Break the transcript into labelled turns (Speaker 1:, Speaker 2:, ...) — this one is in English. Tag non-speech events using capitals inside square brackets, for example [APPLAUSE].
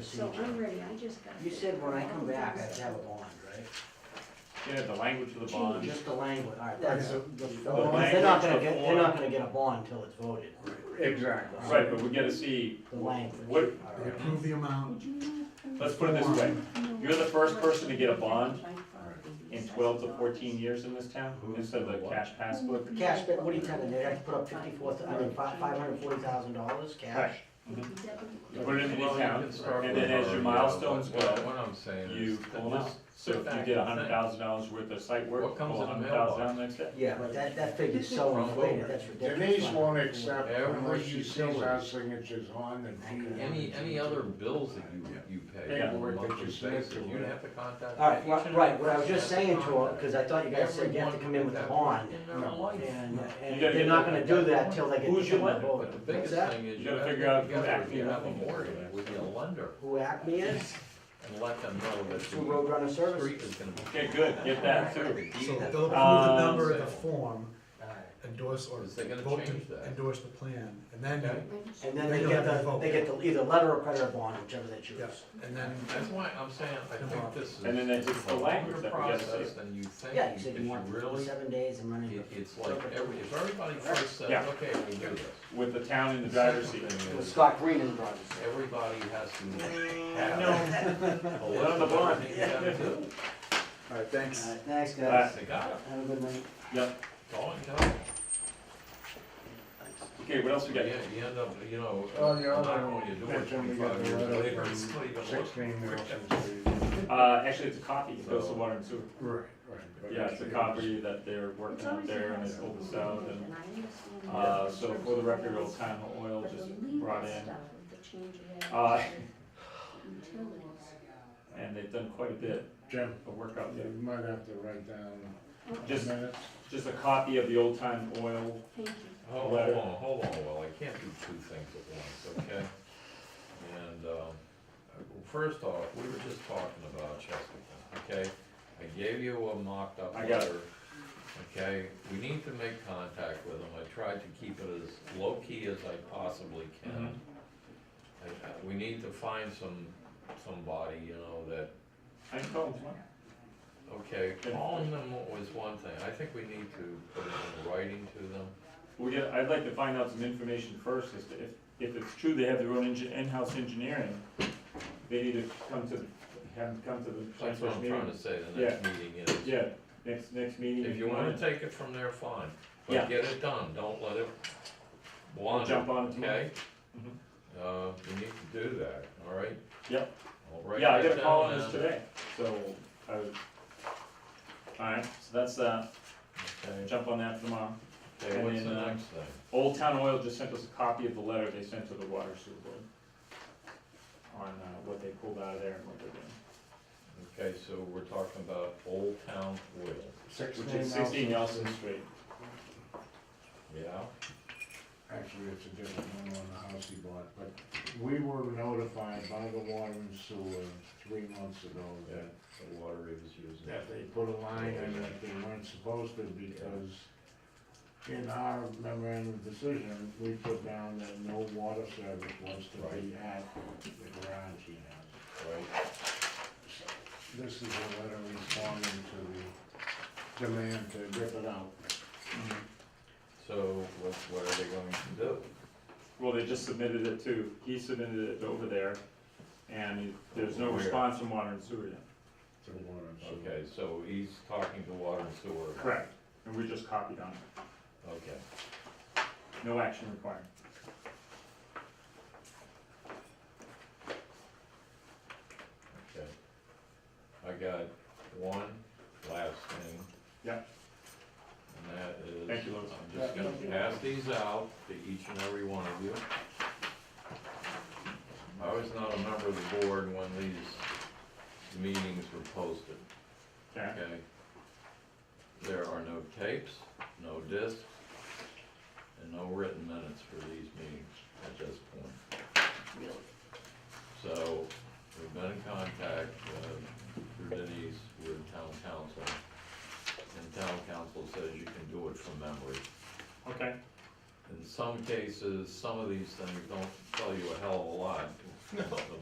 Speaker 1: So
Speaker 2: procedure.
Speaker 1: I'm ready, I just got.
Speaker 2: You said when I come back, I have to have a bond, right?
Speaker 3: Yeah, the language of the bond.
Speaker 2: Just the language, all right, that's,
Speaker 4: Yeah.
Speaker 2: the- the-
Speaker 3: The
Speaker 2: they're not
Speaker 3: language,
Speaker 2: gonna
Speaker 3: the
Speaker 2: get, they're not gonna get a bond until it's voted,
Speaker 4: Exactly.
Speaker 3: Right, but we gotta see,
Speaker 2: the language.
Speaker 3: What-
Speaker 2: All
Speaker 4: They
Speaker 2: right.
Speaker 4: approve the amount,
Speaker 1: Would you know-
Speaker 3: let's put it this way, you're the first person to get a bond in
Speaker 1: in
Speaker 3: twelve to fourteen years in this town, instead of the cash passbook.
Speaker 2: For Cash, but what are you telling me, they have to put up fifty-four, I mean, five, five hundred and forty thousand dollars cash?
Speaker 3: You put it in the account, and then as your milestones
Speaker 5: What
Speaker 3: go,
Speaker 5: what I'm saying
Speaker 3: you
Speaker 5: is,
Speaker 3: pull them out.
Speaker 5: just
Speaker 3: So if you did a hundred thousand dollars worth of site work,
Speaker 5: What comes
Speaker 3: pull a
Speaker 5: in the
Speaker 3: hundred thousand
Speaker 5: mailbox?
Speaker 3: dollars next day.
Speaker 2: Yeah, but that, that figure's so inflated, that's ridiculous.
Speaker 6: Denise won't accept
Speaker 5: Every
Speaker 6: unless she sees
Speaker 5: utility.
Speaker 6: our signatures on the deed.
Speaker 5: any, any other bills that you, you pay
Speaker 3: Yeah.
Speaker 5: on a monthly
Speaker 6: Just make
Speaker 5: basis,
Speaker 6: sure.
Speaker 5: you'd have to contact.
Speaker 2: All right,
Speaker 5: each
Speaker 2: right,
Speaker 5: and
Speaker 2: right,
Speaker 5: every
Speaker 2: what I was just
Speaker 5: person
Speaker 2: saying to
Speaker 5: that's
Speaker 2: her,
Speaker 5: contact.
Speaker 2: cause I thought you guys said you have to
Speaker 5: Everyone
Speaker 2: come in with a
Speaker 5: that
Speaker 2: bond,
Speaker 5: in their
Speaker 6: No.
Speaker 5: life.
Speaker 2: and, and
Speaker 3: gotta
Speaker 2: they're
Speaker 3: get
Speaker 2: not
Speaker 3: that-
Speaker 2: gonna do that till they get.
Speaker 3: Who's
Speaker 2: the
Speaker 3: your lender?
Speaker 2: vote.
Speaker 5: But the biggest
Speaker 2: What's that?
Speaker 5: thing is,
Speaker 3: You
Speaker 5: you
Speaker 3: gotta
Speaker 5: have to
Speaker 3: figure out
Speaker 5: get together,
Speaker 3: who
Speaker 5: you have a
Speaker 3: actually-
Speaker 5: mortgage with your lender,
Speaker 2: Who Acme is,
Speaker 5: and let them know that
Speaker 2: who Roadrunner
Speaker 5: the
Speaker 2: Service.
Speaker 5: street is gonna be.
Speaker 3: Okay, good, get that too.
Speaker 4: so they'll
Speaker 5: Deed.
Speaker 4: approve the
Speaker 3: Um,
Speaker 4: number of the
Speaker 5: so-
Speaker 4: form, endorse or
Speaker 5: Is they gonna
Speaker 4: vote
Speaker 5: change that?
Speaker 4: to endorse the plan, and then,
Speaker 5: Okay.
Speaker 2: And then
Speaker 4: They
Speaker 2: they
Speaker 4: don't
Speaker 2: get
Speaker 4: have to
Speaker 2: the,
Speaker 4: vote.
Speaker 2: they get the, either letter or credit or bond, whichever they choose.
Speaker 4: yes, and then,
Speaker 5: That's why I'm saying, I think this is.
Speaker 3: And then it's just the
Speaker 5: a
Speaker 3: language
Speaker 5: longer
Speaker 3: that we gotta see.
Speaker 5: process Than you think,
Speaker 2: Yeah, you
Speaker 5: if
Speaker 2: said you
Speaker 5: you
Speaker 2: want
Speaker 5: really,
Speaker 2: seven days and running.
Speaker 5: it, it's like, every, if everybody first says,
Speaker 3: Yeah.
Speaker 5: okay, we'll do this.
Speaker 3: With the town in the driver's seat.
Speaker 5: Second thing
Speaker 2: With
Speaker 5: is,
Speaker 2: Scott Green in the driver's seat.
Speaker 5: Everybody has to
Speaker 3: I
Speaker 5: have.
Speaker 3: know.
Speaker 5: a
Speaker 3: Put on the
Speaker 5: list of
Speaker 3: bond. [LAUGHS]
Speaker 5: everything you gotta do.
Speaker 4: all right, thanks.
Speaker 2: All right, thanks, guys.
Speaker 3: Alright.
Speaker 5: They got it,
Speaker 2: Have a good night.
Speaker 3: Yep,
Speaker 5: it's all in town.
Speaker 3: okay, what else we
Speaker 5: You
Speaker 3: got?
Speaker 5: end you end up, you know,
Speaker 6: Oh,
Speaker 5: not
Speaker 6: yeah,
Speaker 5: knowing you do it
Speaker 6: that's when we got
Speaker 5: twenty-five
Speaker 6: the
Speaker 5: years
Speaker 6: letter
Speaker 5: later,
Speaker 6: from
Speaker 5: it's not even looking.
Speaker 6: Sixteen Nelson Street.
Speaker 3: Uh, actually, it's a copy, it goes to water and sewer.
Speaker 6: Right, right. but
Speaker 3: Yeah, it's a copy that they're working out there and it's open sound and Uh, so for the record, Old Time Oil just brought in, uh, and they've done quite a bit
Speaker 6: Jim,
Speaker 3: of work out there.
Speaker 6: you might have to write down the
Speaker 3: Just,
Speaker 6: minutes.
Speaker 3: just a copy of the Old Time Oil,
Speaker 1: Thank you.
Speaker 5: Hold on,
Speaker 3: Letter.
Speaker 5: hold on, well, I can't do two things at once, okay? And, um, first off, we were just talking about Chesterton, okay? I gave you a mocked up
Speaker 3: I got it.
Speaker 5: letter, okay? We need to make contact with them, I tried to keep it as low-key as I possibly can.
Speaker 3: Mm-hmm.
Speaker 5: I- I- We need to find some, somebody, you know, that
Speaker 3: I can call them tomorrow.
Speaker 5: Okay, calling them was one thing, I think we need to put it in writing to them.
Speaker 3: We get, I'd like to find out some information first, as to if, if it's true they have their own engi- in-house engineering, they need to come to, have them come to the
Speaker 5: That's
Speaker 3: planning
Speaker 5: what
Speaker 3: board
Speaker 5: I'm trying
Speaker 3: meeting.
Speaker 5: to say, the next meeting is,
Speaker 3: Yeah, next, next meeting.
Speaker 5: if you wanna take it from there, fine,
Speaker 3: Yeah.
Speaker 5: but get it done, don't let it
Speaker 3: I'll
Speaker 5: wander,
Speaker 3: Jump on it tomorrow. Mm-hmm.
Speaker 5: okay? Uh, we need to do that, all right?
Speaker 3: Yep.
Speaker 5: I'll write
Speaker 3: Yeah, I
Speaker 5: that
Speaker 3: got a call
Speaker 5: down
Speaker 3: on this
Speaker 5: and-
Speaker 3: today, so I would. Alright, so that's, uh,
Speaker 5: Okay,
Speaker 3: jump on that tomorrow.
Speaker 5: Okay,
Speaker 3: And
Speaker 5: what's the
Speaker 3: then, uh,
Speaker 5: next thing?
Speaker 3: Old Town Oil just sent us a copy of the letter they sent to the water sewer board. On, uh, what they pulled out of there and what they're doing,
Speaker 5: Okay, so we're talking about Old Town Oil,
Speaker 3: which is sixteen Nelson Street.
Speaker 5: yeah?
Speaker 6: Actually, it's a different one on the house he bought, but we were notified by the water and sewer three months ago that,
Speaker 5: The water is using.
Speaker 6: that they put a line in that they weren't supposed to because in our memorandum of decision, we put down that no water service was to be at the garage he has.
Speaker 5: Right,
Speaker 6: This is a letter responding to the demand to rip it out.
Speaker 5: so what, what are they going to do?
Speaker 3: Well, they just submitted it to, he submitted it over there, and there's no
Speaker 5: Where?
Speaker 3: response from water and sewer yet.
Speaker 6: to the water and sewer.
Speaker 5: Okay, so he's talking to water and sewer.
Speaker 3: Correct. And we just copied on it,
Speaker 5: Okay,
Speaker 3: no action required.
Speaker 5: okay. I got one last thing.
Speaker 3: Yep.
Speaker 5: And that is.
Speaker 3: Thank you, Louis.
Speaker 5: I'm just gonna pass these out to each and every one of you. I was not a member of the board when these meetings were posted,
Speaker 3: Okay,
Speaker 5: okay? There are no tapes, no discs, and no written minutes for these meetings at this point.
Speaker 2: Really.
Speaker 5: So, we've been in contact, uh, through Denise with town council. And town council says you can do it from memory.
Speaker 3: okay,
Speaker 5: In some cases, some of these things don't tell you a hell of a lot. The